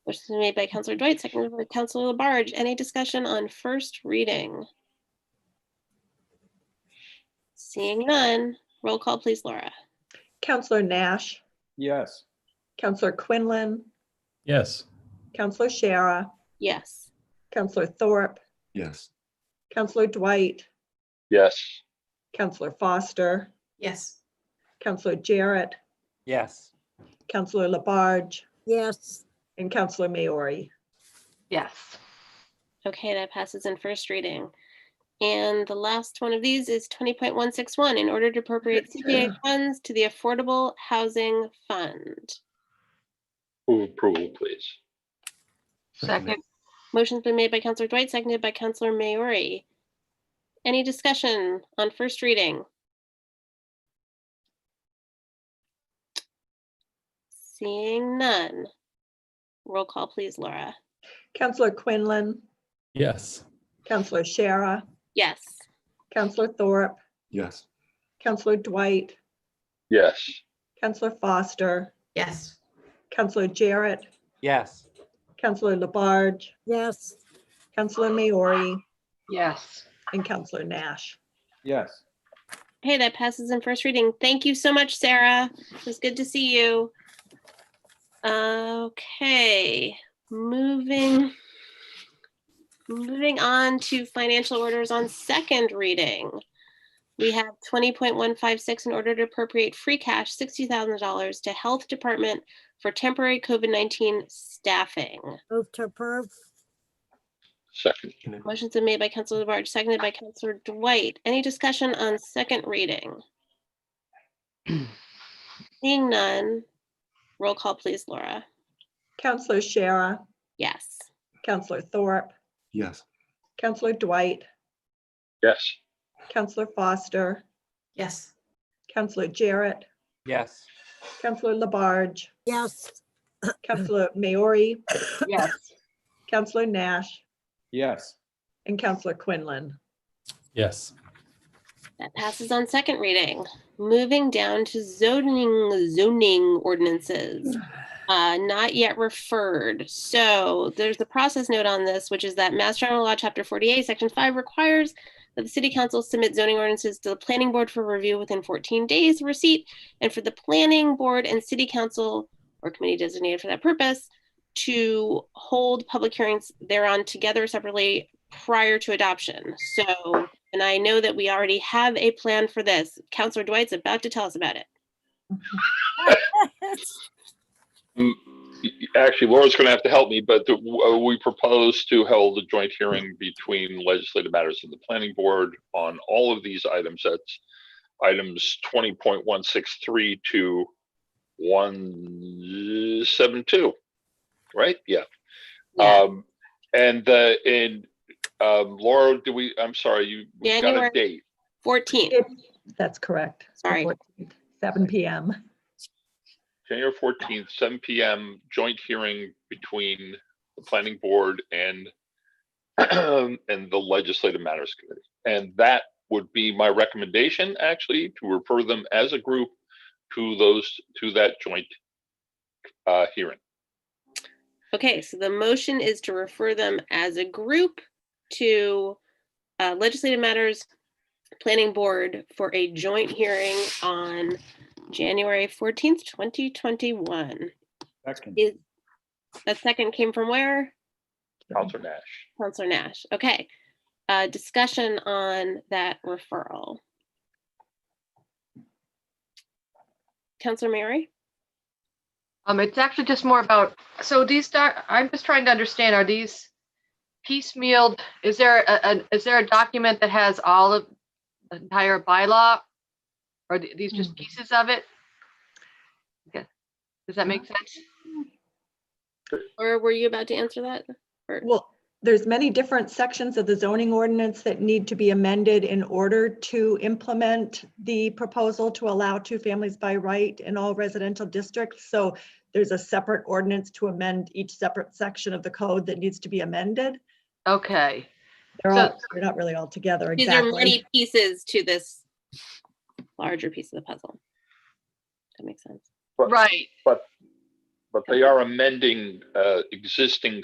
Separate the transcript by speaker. Speaker 1: Motion's been made by Counselor Dwight, seconded by Counselor Labarge. Any discussion on first reading? Seeing none, roll call please, Laura.
Speaker 2: Counselor Nash,
Speaker 3: Yes.
Speaker 2: Counselor Quinlan,
Speaker 4: Yes.
Speaker 2: Counselor Shara,
Speaker 1: Yes.
Speaker 2: Counselor Thorpe,
Speaker 3: Yes.
Speaker 2: Counselor Dwight,
Speaker 5: yes,
Speaker 2: Counselor Foster,
Speaker 6: yes,
Speaker 2: Counselor Jarrett,
Speaker 3: Yes.
Speaker 2: Counselor Labarge,
Speaker 7: yes,
Speaker 2: and Counselor Maori.
Speaker 6: yes,
Speaker 1: Okay, that passes in first reading. And the last one of these is twenty point one six one, in order to appropriate CPA funds to the Affordable Housing Fund.
Speaker 5: move approval, please.
Speaker 6: second,
Speaker 1: Motion's been made by Counselor Dwight, seconded by Counselor Maori. Any discussion on first reading? Seeing none. Roll call, please, Laura.
Speaker 2: Counselor Quinlan,
Speaker 4: Yes.
Speaker 2: Counselor Shara,
Speaker 1: Yes.
Speaker 2: Counselor Thorpe,
Speaker 3: Yes.
Speaker 2: Counselor Dwight,
Speaker 5: Yes,
Speaker 2: Counselor Foster,
Speaker 6: yes,
Speaker 2: Counselor Jarrett,
Speaker 3: Yes.
Speaker 2: Counselor Labarge,
Speaker 7: yes,
Speaker 2: Counselor Maori,
Speaker 6: yes.
Speaker 2: and Counselor Nash.
Speaker 3: Yes.
Speaker 1: Hey, that passes in first reading. Thank you so much, Sarah. It was good to see you. Okay, moving. Moving on to financial orders on second reading. We have twenty point one five six in order to appropriate free cash sixty thousand dollars to Health Department for temporary COVID nineteen staffing.
Speaker 7: move to approve,
Speaker 5: second,
Speaker 1: Motion's been made by Counselor Labarge, seconded by Counselor Dwight. Any discussion on second reading? Seeing none, roll call please, Laura.
Speaker 2: Counselor Shara,
Speaker 1: Yes.
Speaker 2: Counselor Thorpe,
Speaker 3: Yes.
Speaker 2: Counselor Dwight,
Speaker 5: yes,
Speaker 2: Counselor Foster,
Speaker 6: Yes,
Speaker 2: Counselor Jarrett,
Speaker 3: Yes.
Speaker 2: Counselor Labarge,
Speaker 7: yes,
Speaker 2: Counselor Maori,
Speaker 6: yes,
Speaker 2: Counselor Nash,
Speaker 3: Yes.
Speaker 2: and Counselor Quinlan.
Speaker 4: Yes.
Speaker 1: That passes on second reading. Moving down to zoning, zoning ordinances. Uh, not yet referred. So there's the process note on this, which is that Mass General Law, Chapter 48, Section 5 requires that the city council submit zoning ordinances to the planning board for review within 14 days of receipt and for the planning board and city council or committee designated for that purpose to hold public hearings thereon together separately prior to adoption. So and I know that we already have a plan for this. Counselor Dwight's about to tell us about it.
Speaker 5: Mm, Actually, Laura's going to have to help me, but the- uh, we propose to hold a joint hearing between legislative matters and the planning board on all of these items. That's items twenty point one six three to one seven two, right? Yeah.
Speaker 1: Yeah.
Speaker 5: Um, and the, and, um, Laura, do we, I'm sorry, you we got
Speaker 1: January.
Speaker 5: a date.
Speaker 1: 14.
Speaker 2: That's correct.
Speaker 1: Sorry.
Speaker 2: 14th, Seven PM.
Speaker 5: January fourteenth, seven PM, joint hearing between the planning board and and the legislative matters committee. And that would be my recommendation, actually, to refer them as a group to those, to that joint uh, hearing.
Speaker 1: Okay, so the motion is to refer them as a group to uh, Legislative Matters Planning Board for a joint hearing on January 14th, 2021.
Speaker 3: Second.
Speaker 1: Is, that second came from where?
Speaker 5: Counselor Nash.
Speaker 1: Counselor Nash. Okay. Uh, Discussion on that referral. Counselor Mary?
Speaker 8: Um, it's actually just more about, so these, doc- I'm just trying to understand, are these piecemealed? Is there a, an is there a document that has all of the entire bylaw? Or th- these just pieces of it? Okay. Does that make sense?
Speaker 1: Or were you about to answer that?
Speaker 2: Well, there's many different sections of the zoning ordinance that need to be amended in order to implement the proposal to allow two families by right in all residential districts. So there's a separate ordinance to amend each separate section of the code that needs to be amended.
Speaker 8: Okay,
Speaker 2: They're
Speaker 8: So-
Speaker 2: all, they're not really all together
Speaker 1: These are
Speaker 2: exactly.
Speaker 1: many pieces to this larger piece of the puzzle. That makes sense.
Speaker 5: But-
Speaker 8: right.
Speaker 5: but they are amending, uh, existing